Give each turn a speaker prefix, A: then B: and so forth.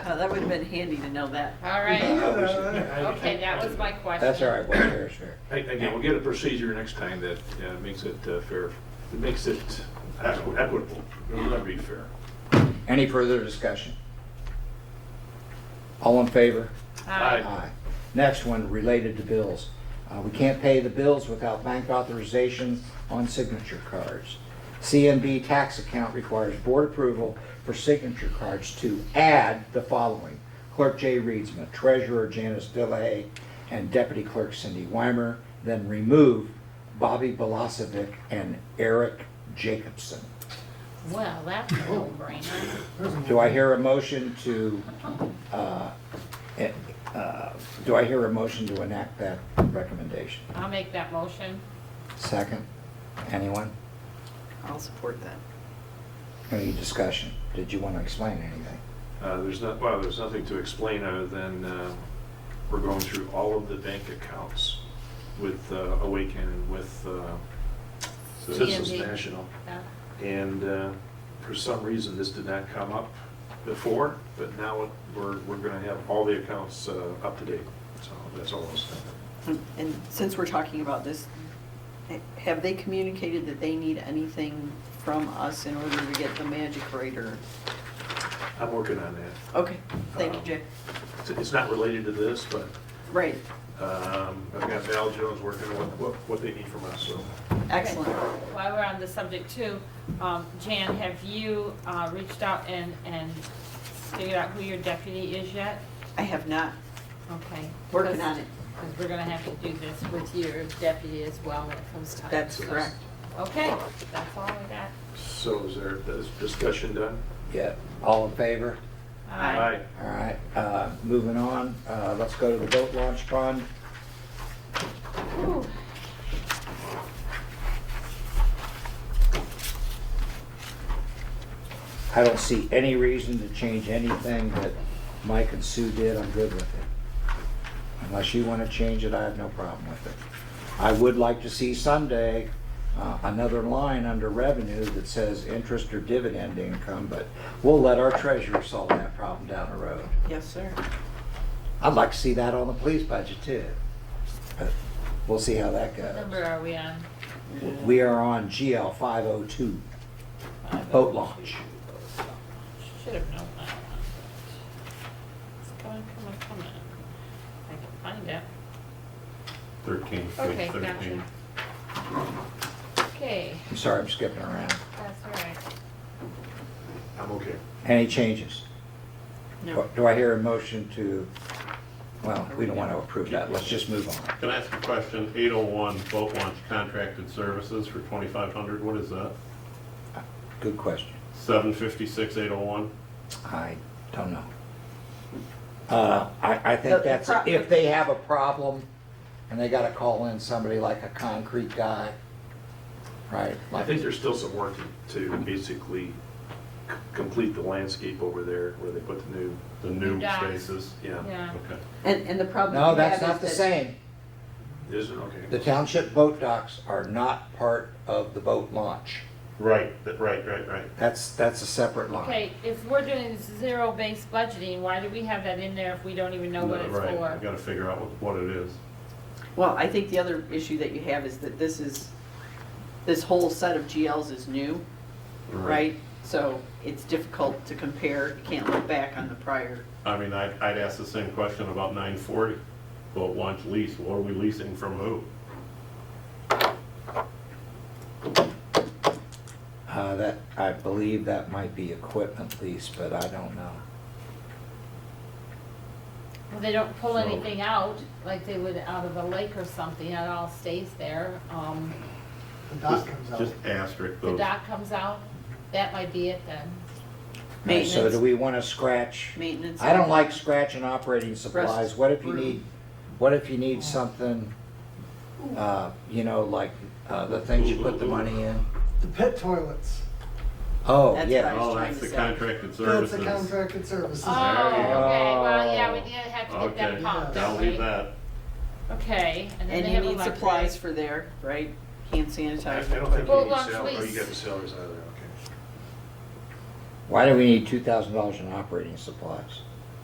A: Oh, that would have been handy to know that.
B: All
C: Yeah.
B: right, okay,
C: Okay,
B: that was my question.
C: That's all right, Board Chair, sure.
D: Again, we'll get a procedure next time that uh, makes it uh, fair, that makes it equi- equitable. It'll never be fair.
C: Any further discussion? All in favor?
B: Aye.
C: Aye. Next one, related to bills. Uh, We can't pay the bills without bank authorization on signature cards. CNB tax account requires board approval for signature cards to add the following. Clerk Jay Reedsma, Treasurer Janice Delahay, and Deputy Clerk Cindy Weimer, then remove Bobby Belasovic and Eric Jacobson.
B: Well, that's a no-brainer.
C: Do I hear a motion to, uh, eh, uh, do I hear a motion to enact that recommendation?
B: I'll make that motion.
C: Second? Anyone?
A: I'll support that.
C: Any discussion? Did you want to explain anything?
D: Uh, There's not, well, there's nothing to explain other than uh, we're going through all of the bank accounts with uh, Awaken and with uh, Citizens
B: CMB.
D: National.
B: Uh,
D: And uh, for some reason, this did not come up before, but now it- we're, we're going to have all the accounts uh, up to date. So that's all I was saying.
A: And since we're talking about this, have they communicated that they need anything from us in order to get the magic grader?
D: I'm working on that. Um,
A: Okay, thank you, Jay.
D: It's- It's not related to this, but
A: Uh, Right,
D: um, I've got Val Jones working on what- what, what they need from us, so.
A: excellent.
B: While we're on the subject too, um, Jan, have you, uh, reached out and, and figured out who your deputy is yet?
A: I have not,
B: Okay.
A: working on it.
B: Because we're gonna have to do this with your deputy as well when it comes time.
A: That's
B: So-
A: correct.
B: Okay, that's all I got.
D: So is there, is discussion done?
C: Yeah. All in favor?
B: Aye.
C: All right, uh, moving on, Uh, let's go to the boat launch fund.
B: Ooh.
C: I don't see any reason to change anything that Mike and Sue did, I'm good with it. Unless you want to change it, I have no problem with it. I would like to see someday uh, another line under revenue that says interest or dividend income, but we'll let our treasurer solve that problem down the road.
A: Yes, sir.
C: I'd like to see that on the police budget too. But We'll see how that
B: What number
C: goes.
B: are we on?
C: We are on GL 502, boat launch.
B: Should have known that one. It's coming, coming, coming. I can find it.
E: 13,
B: Okay,
E: page 13.
B: gotcha. Okay,
C: I'm sorry, I'm skipping around.
B: that's all right.
D: I'm okay.
C: Any changes?
A: No,
C: Do I hear a motion to, well, we don't want to approve that, let's just move on.
E: Can I ask a question? 801 boat launch contracted services for 2,500, what is that?
C: Good question.
E: 756, 801?
C: I don't know. Uh, I, I think
A: The- the
C: that's,
A: pro-
C: if they have a problem and they got to call in somebody like a concrete guy, right?
D: I
C: like-
D: think there's still some work to- to basically c- complete the landscape over there where they put the new,
E: The new
B: New docks.
E: spaces?
D: yeah.
B: Yeah,
E: Okay.
A: and, and the problem.
C: No,
A: you
C: that's
A: have
C: not
A: is
C: the
A: that-
C: same.
D: Isn't, okay.
C: The township boat docks are not part of the boat launch.
E: Right, th- right, right, right.
C: That's, that's a separate line.
B: okay, if we're doing zero-based budgeting, why do we have that in there if we don't even know what
E: No,
B: it's
E: Right, I
B: for?
E: gotta figure out what- what it is.
A: Well, I think the other issue that you have is that this is, this whole set of GLs is new, right? So it's difficult to compare, you can't look back on the prior.
E: I mean, I'd, I'd ask the same question about 940, boat launch lease, what are we leasing from who?
C: Uh, that, I believe that might be equipment lease, but I don't know.
B: Well, They don't pull
E: So-
B: anything out, like they would out of a lake or something, it all stays there. Um,
F: The dock
E: Just
F: comes out.
E: Just asterisk
B: The
E: those.
B: dock comes out, that might be it then.
C: Alright, So do
A: Maintenance.
C: we want to scratch?
A: Maintenance. Mm.
C: I don't like scratching operating supplies. What if you
A: Rest-
C: need, what if you need something, uh, you know, like, uh, the things you put the money in?
F: The pit toilets.
C: Oh,
A: That's what I
C: yeah.
A: was
E: Oh,
A: trying
E: that's
A: to
E: the
A: say.
E: contracted
F: That's the
E: services.
F: contracted services.
B: Oh, okay, well, yeah, we did have to get
E: Oh. Okay,
B: that pumped,
E: I'll leave
B: right?
E: that.
B: Okay, and then
A: And
B: they
A: you
B: have
A: need
B: electric.
A: supplies for there, right? Hand
D: I I don't
A: sanitizer.
D: think you
B: Boat
D: need
B: launch
D: salaries, oh, you
B: lease.
D: got the salaries out of there, okay.
C: Why do we need two thousand dollars in operating supplies?